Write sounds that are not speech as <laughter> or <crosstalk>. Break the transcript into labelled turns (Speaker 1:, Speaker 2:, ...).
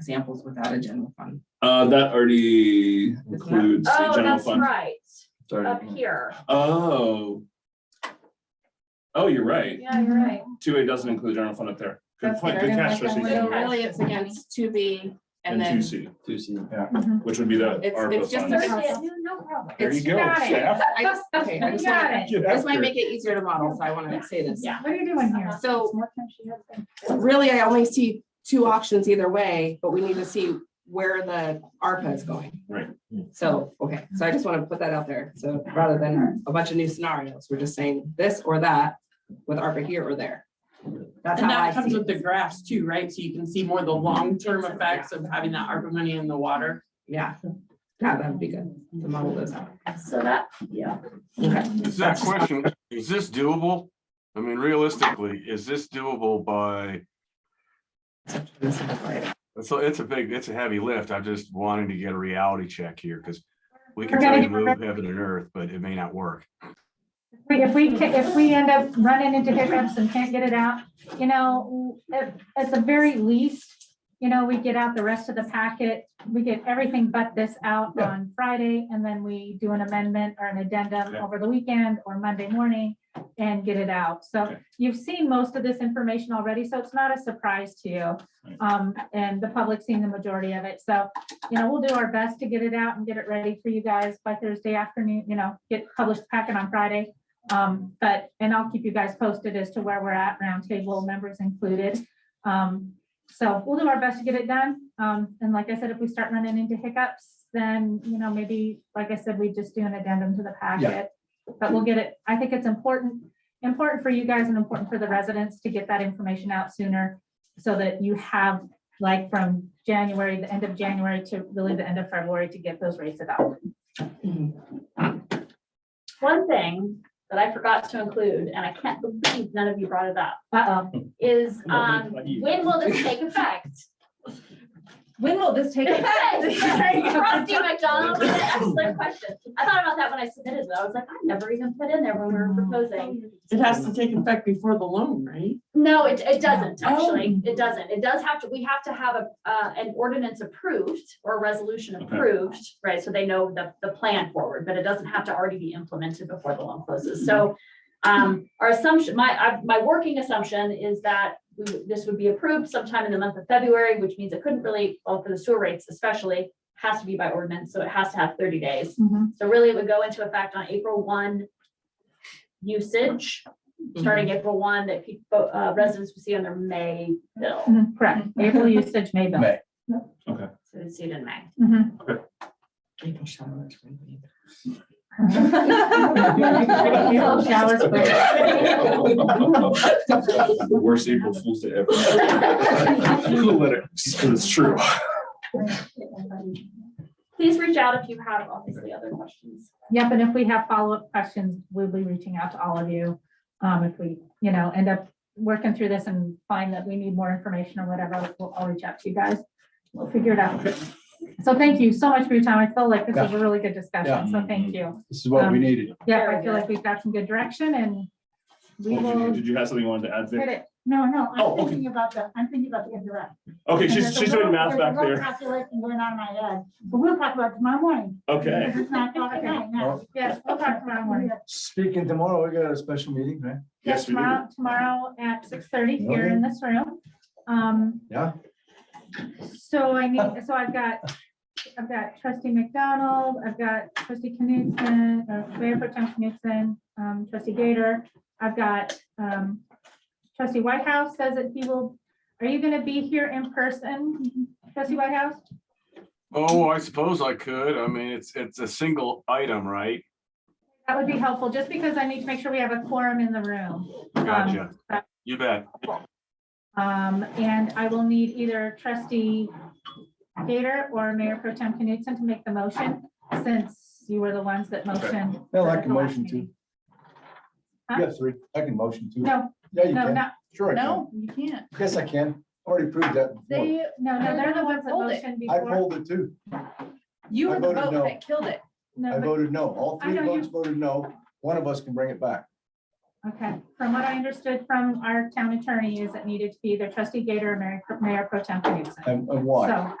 Speaker 1: examples without a general fund.
Speaker 2: Uh, that already
Speaker 1: not-
Speaker 2: includes the
Speaker 3: Oh,
Speaker 2: general
Speaker 3: that's
Speaker 2: fund.
Speaker 3: right, up
Speaker 4: Sorry.
Speaker 3: here.
Speaker 2: Oh. Oh, you're right.
Speaker 3: Yeah, you're right.
Speaker 2: Two A doesn't include general fund up there. Good
Speaker 1: That's
Speaker 2: point,
Speaker 1: fair.
Speaker 2: good
Speaker 1: Like,
Speaker 2: catch,
Speaker 1: that
Speaker 2: trustee.
Speaker 1: window,
Speaker 2: Fielder.
Speaker 1: Really, it's against two B
Speaker 2: And
Speaker 1: and
Speaker 2: two
Speaker 1: then Mm-hmm.
Speaker 2: C,
Speaker 4: Two C.
Speaker 2: which would be that
Speaker 1: It's-
Speaker 2: ARPA
Speaker 1: it's just
Speaker 2: fund.
Speaker 1: a-
Speaker 3: Thursday, no problem.
Speaker 2: There you
Speaker 1: it's-
Speaker 2: go,
Speaker 3: got it.
Speaker 2: staff.
Speaker 1: I just, okay, I just
Speaker 3: Got
Speaker 1: wanna,
Speaker 3: it.
Speaker 2: Get
Speaker 1: this
Speaker 2: after
Speaker 1: might
Speaker 2: it.
Speaker 1: make <laughs> it easier to model, so I wanna say this.
Speaker 3: Yeah.
Speaker 5: What are you doing here?
Speaker 1: So-
Speaker 5: It's More time she has than.
Speaker 1: Really, I only see two options either way, but we need to see where the ARPA is going.
Speaker 2: Right.
Speaker 1: So, okay, so I just wanna put that out there. So rather than a bunch of new scenarios, we're just saying this or that with ARPA here or there. <laughs> That's
Speaker 6: And
Speaker 1: how I
Speaker 6: that comes
Speaker 1: see
Speaker 6: with
Speaker 1: it.
Speaker 6: the graphs too, right? So you can see more the long-term effects of having that ARPA money in the water.
Speaker 1: Yeah. Yeah, that would be good to model this out.
Speaker 3: So that, yeah.
Speaker 1: Okay.
Speaker 7: Is that question, is this doable? I mean, realistically, is this doable by, so it's a big, it's a heavy lift. I'm just wanting to get a reality check here because we can
Speaker 5: We're gonna
Speaker 7: try to
Speaker 5: get-
Speaker 7: move heaven and earth, but it may not work.
Speaker 5: We- If we, ca- if we end up running into hiccups and can't get it out, you know, at, at the very least, you know, we get out the rest of the packet, we get everything but this out
Speaker 2: Yeah.
Speaker 5: on Friday, and then we do an amendment or an addendum
Speaker 2: Yeah.
Speaker 5: over the weekend or Monday morning and get it out. So
Speaker 2: Okay.
Speaker 5: you've seen most of this information already, so it's not a surprise to you.
Speaker 2: Right.
Speaker 5: Um, and the public's seen the majority of it, so you know, we'll do our best to get it out and get it ready for you guys by Thursday afternoon, you know, get published packet on Friday. Um, but, and I'll keep you guys posted as to where we're at, roundtable members included. Um, so we'll do our best to get it done. Um, and like I said, if we start running into hiccups, then, you know, maybe, like I said, we just do an addendum to the packet. But we'll get it, I think it's important, important for you guys and important for the residents to get that information out sooner so that you have like from January, the end of January to really the end of February to get those rates about.
Speaker 3: One thing that I forgot to include, and I can't believe none of you brought it up,
Speaker 5: Uh-oh,
Speaker 3: is
Speaker 2: No,
Speaker 3: um,
Speaker 2: not you.
Speaker 3: when will this take effect? <laughs>
Speaker 5: when will this take
Speaker 3: Effect. Trustee McDonald, what an excellent question. I thought about that when I submitted, but I was like, I never even put in there when we were proposing.
Speaker 6: It has to take effect before the loan, right?
Speaker 3: No, it, it doesn't, actually. It doesn't. It does have to, we have to have a, uh, an ordinance approved or a resolution
Speaker 2: Okay.
Speaker 3: approved, right? So they know the, the plan forward, but it doesn't have to already be implemented before the loan closes. So, um, our assumption, my, I, my working assumption is that we, would- this would be approved sometime in the month of February, which means it couldn't really, well, for the sewer rates especially, has to be by ordinance, so it has to have thirty days.
Speaker 5: Mhm.
Speaker 3: So really, it would go into effect on April one usage, starting April one, that people, uh, residents would see on their May bill.
Speaker 5: Mhm, Correct, April usage may bill.
Speaker 4: May.
Speaker 3: So they'd see it in May.
Speaker 5: Mhm. April showers.
Speaker 2: <laughs> The worst April Fool's Day
Speaker 1: <laughs>
Speaker 2: ever. The letter, it's true.
Speaker 3: Please reach out if you have obviously other questions.
Speaker 5: Yep, and if we have follow-up questions, we'll be reaching out to all of you. Um, if we, you know, end up working through this and find that we need more information or whatever, we'll, I'll reach out to you guys. We'll figure it out. So thank you so much for your time. I feel like this was a really good discussion, so thank you.
Speaker 4: Mm-hmm.
Speaker 5: Um,
Speaker 4: This is what we needed.
Speaker 5: Yeah, I feel like we've got some good direction and we
Speaker 2: Well, Did you-
Speaker 5: will
Speaker 2: did you have something you wanted to add
Speaker 5: hit
Speaker 2: there?
Speaker 5: it.
Speaker 8: No, no,
Speaker 2: Oh,
Speaker 8: I'm
Speaker 2: okay.
Speaker 8: thinking about the, I'm thinking about the indirect.
Speaker 2: Okay,
Speaker 8: And
Speaker 2: she's,
Speaker 8: there's a
Speaker 2: she's doing
Speaker 8: little-
Speaker 2: math
Speaker 8: there's a
Speaker 2: back
Speaker 8: little
Speaker 2: there.
Speaker 8: Calculation going on in my head, but we'll talk about it tomorrow morning.
Speaker 2: Okay.
Speaker 8: Because It's not
Speaker 5: <laughs>
Speaker 8: o'clock at night now.
Speaker 5: Yes, we'll talk tomorrow morning.
Speaker 4: Speaking tomorrow, we got a special meeting, right?
Speaker 2: Yes, we do.
Speaker 5: Tomorrow, tomorrow at six thirty here in this room. Um,
Speaker 4: Yeah.
Speaker 5: So I need, so I've got, I've got trustee McDonald, I've got trustee Knudsen, uh, Mayor Pro Tem Knudsen, um, trustee Gator. I've got, um, trustee Whitehouse says that he will, are you gonna be here in person, trustee Whitehouse?
Speaker 7: Oh, I suppose I could. I mean, it's, it's a single item, right?
Speaker 5: That would be helpful, just because I need to make sure we have a quorum in the room.
Speaker 7: Gotcha.
Speaker 5: Um,
Speaker 7: You bet.
Speaker 5: Um, and I will need either trustee Gator or Mayor Pro Tem Knudsen to make the motion, since you were the ones that motioned.
Speaker 4: Yeah, I
Speaker 5: for
Speaker 4: can
Speaker 5: the last
Speaker 4: motion too.
Speaker 5: meeting. Huh?
Speaker 4: Yeah, three. I can motion too.
Speaker 5: No,
Speaker 4: Yeah, you
Speaker 5: no,
Speaker 4: can.
Speaker 5: not,
Speaker 4: Sure. I can.
Speaker 9: No, you can't.
Speaker 4: Yes, I can. Already proved that. before.
Speaker 9: They,
Speaker 5: no, no, they're the ones that
Speaker 9: Hold it.
Speaker 5: motioned
Speaker 4: I
Speaker 5: before.
Speaker 4: pulled it too.
Speaker 9: you were
Speaker 4: I
Speaker 9: the
Speaker 4: voted
Speaker 9: vote
Speaker 4: no.
Speaker 9: that killed it.
Speaker 5: No,
Speaker 4: I
Speaker 5: but
Speaker 4: voted no. All
Speaker 5: I
Speaker 4: three
Speaker 5: know you-
Speaker 4: votes voted no. One of us can bring it back.
Speaker 5: Okay, from what I understood from our town attorney is it needed to be either trustee Gator or Mayor- Mayor Pro Tem Knudsen.
Speaker 4: And, and why?
Speaker 5: So